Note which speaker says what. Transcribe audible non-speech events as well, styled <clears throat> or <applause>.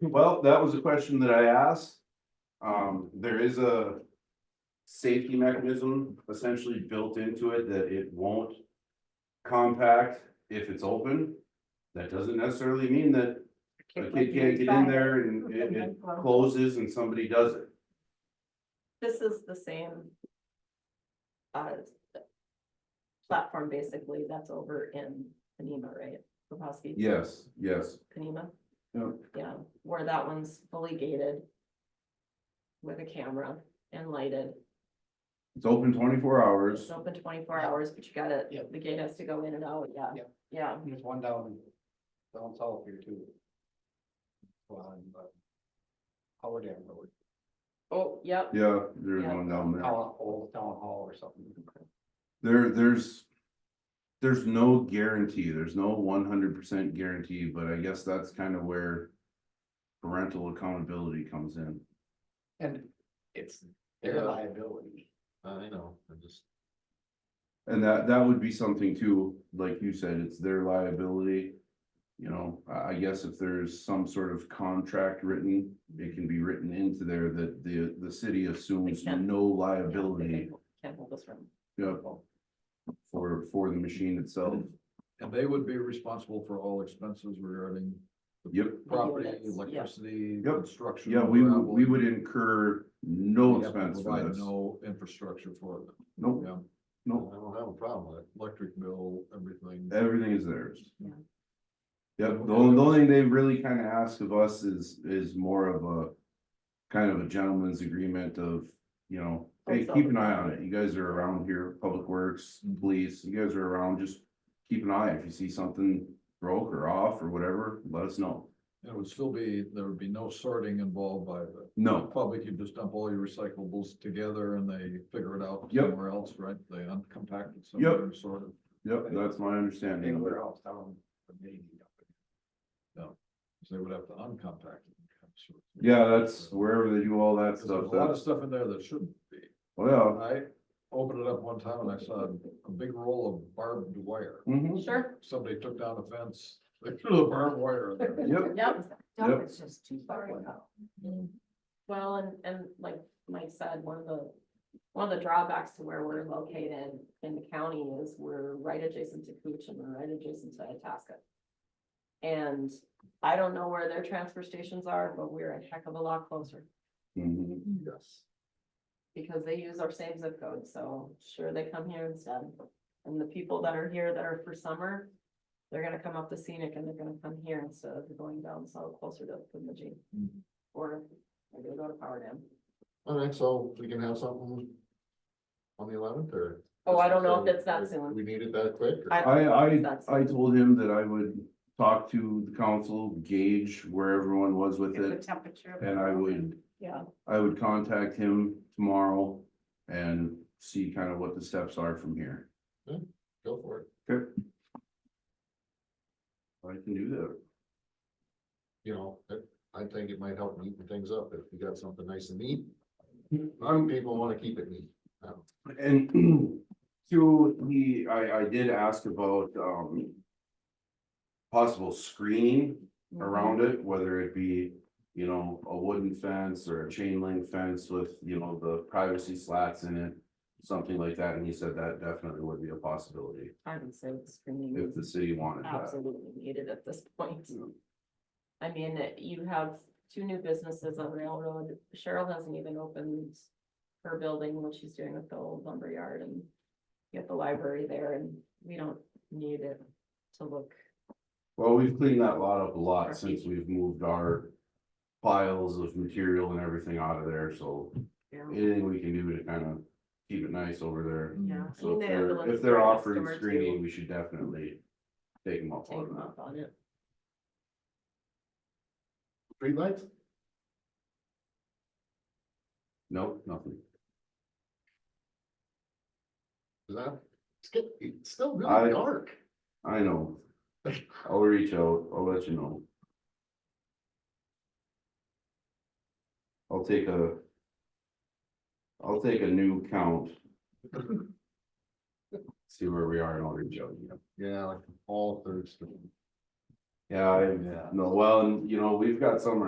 Speaker 1: Well, that was a question that I asked. Um, there is a. Safety mechanism essentially built into it that it won't. Compact if it's open. That doesn't necessarily mean that a kid can't get in there and it, it closes and somebody does it.
Speaker 2: This is the same. Uh. Platform basically that's over in Panema, right? Lebowski,
Speaker 1: Yes, yes.
Speaker 2: Panema,
Speaker 1: Yeah.
Speaker 2: yeah, where that one's fully gated. With a camera and lighted,
Speaker 1: It's open twenty-four hours.
Speaker 2: it's open twenty-four
Speaker 3: Yeah.
Speaker 2: hours, but you gotta,
Speaker 3: Yeah.
Speaker 2: the gate has to go in and out, yeah,
Speaker 3: Yeah.
Speaker 2: yeah.
Speaker 3: There's one down, down south here too. On, uh, Howard Dam Road,
Speaker 2: Oh, yep,
Speaker 1: Yeah, there's one down
Speaker 3: town,
Speaker 1: there.
Speaker 3: old town hall or something.
Speaker 1: There, there's. There's no guarantee, there's no one hundred percent guarantee, but I guess that's kind of where. Parental accountability comes in.
Speaker 3: And it's their
Speaker 4: Yeah.
Speaker 3: liability.
Speaker 4: I know, I just,
Speaker 1: And that, that would be something too, like you said, it's their liability. You know, I, I guess if there's some sort of contract written, it can be written into there that the, the city assumes
Speaker 2: can.
Speaker 1: no
Speaker 2: yeah, they
Speaker 1: liability.
Speaker 2: can- Can't hold this room,
Speaker 1: yeah, For, for the machine itself.
Speaker 4: and they would be responsible for all expenses regarding
Speaker 1: Yep,
Speaker 4: property,
Speaker 2: Units, yeah.
Speaker 4: electricity,
Speaker 1: Yep.
Speaker 4: construction.
Speaker 1: yeah, we, would-
Speaker 4: gravel.
Speaker 1: we would incur no
Speaker 4: They have to
Speaker 1: expense for
Speaker 4: provide
Speaker 1: this.
Speaker 4: No infrastructure for it,
Speaker 1: Nope,
Speaker 4: yeah.
Speaker 1: Nope.
Speaker 4: I don't have a problem with it, electric bill, everything.
Speaker 1: everything is theirs.
Speaker 2: Yeah.
Speaker 1: Yep, the only, the only thing they really kind of ask of us is, is more of a. Kind of a gentleman's agreement of, you know, hey, keep an eye on it, you guys are around here, public works,
Speaker 5: Mm-hmm.
Speaker 1: police, you guys are around, just. Keep an eye, if you see something broke or off or whatever, let us know.
Speaker 4: It would still be, there would be no sorting involved by the
Speaker 1: No,
Speaker 4: public, you just dump all your recyclables together and they figure it out
Speaker 1: Yep.
Speaker 4: somewhere else, right? They uncompact it somewhere, sort of.
Speaker 1: yep, that's my understanding. of it.
Speaker 3: Anywhere else down. the main,
Speaker 4: So They would have to uncompact it. sort of.
Speaker 1: Yeah, that's wherever they do all that
Speaker 4: 'Cause
Speaker 1: stuff,
Speaker 4: There's a lot of
Speaker 1: that's, oh,
Speaker 4: stuff in there that shouldn't be.
Speaker 1: well,
Speaker 4: I opened it up one time and I saw a big roll of barbed wire.
Speaker 1: yeah. mhm,
Speaker 2: sure,
Speaker 4: Somebody took down the fence, they threw the barbed wire in there.
Speaker 1: yep,
Speaker 2: yep.
Speaker 1: Yep.
Speaker 5: It's just too far out.
Speaker 2: Mm-hmm. Well, and, and like Mike said, one of the, one of the drawbacks to where we're located in the county is we're right adjacent to Cooch and we're right adjacent to Itasca. And I don't know where their transfer stations are, but we're a heck of a lot closer
Speaker 1: mhm,
Speaker 4: Yes.
Speaker 2: because they use our same zip code, so sure they come here instead. And the people that are here that are for summer, they're gonna come up the scenic and they're gonna come here instead of going down so closer to Bemidji or they're gonna go to Power Dam.
Speaker 4: All right, so we can have something on the eleventh or?
Speaker 2: Oh, I don't know if it's that soon.
Speaker 4: We need it that quick?
Speaker 2: I,
Speaker 1: I, I,
Speaker 2: That's-
Speaker 1: I told him that I would talk to the council, gauge where everyone was with
Speaker 5: Get the
Speaker 1: it,
Speaker 5: temperature.
Speaker 1: and I would,
Speaker 2: yeah,
Speaker 1: I would contact him tomorrow and see kind of what the steps are from here.
Speaker 4: Go for it.
Speaker 1: I can do that.
Speaker 4: You know, I think it might help neaten things up if you got something nice and neat. Some people wanna keep it neat.
Speaker 1: And <clears throat> two, he, I, I did ask about, um. Possible screening around it, whether it be, you know, a wooden fence or a chain link fence with, you know, the privacy slats in it. Something like that, and he said that definitely would be a possibility
Speaker 2: I would say the screening
Speaker 1: if
Speaker 2: is
Speaker 1: the city wanted that.
Speaker 2: absolutely needed at this point. I mean, it- you have two new businesses on Railroad. Cheryl hasn't even opened her building, what she's doing with the old lumber yard and get the library there and we don't need it to look.
Speaker 1: Well, we've cleaned that lot up a lot since we've moved our piles of material and everything out of there, so anything we can do to kind of keep it nice over there.
Speaker 2: Yeah. I mean,
Speaker 1: So
Speaker 2: they
Speaker 1: if
Speaker 2: Mm-hmm. have the
Speaker 1: they're,
Speaker 2: ones
Speaker 1: if they're
Speaker 2: right next
Speaker 1: offering
Speaker 2: door to
Speaker 1: screening, we should definitely take them up
Speaker 2: Take
Speaker 1: on
Speaker 2: them
Speaker 1: that.
Speaker 2: up on it.
Speaker 4: Streetlights?
Speaker 1: Nope, nothing.
Speaker 4: Is that, it's get- it's still
Speaker 1: I-
Speaker 4: really dark. <laughs>
Speaker 1: I know. I'll reach out, I'll let you know. I'll take a. I'll take a new count. See where we are and I'll reach out, you know.
Speaker 4: Yeah, like all Thursday.
Speaker 1: Yeah, I,
Speaker 4: Yeah.
Speaker 1: no, well, and you know, we've got some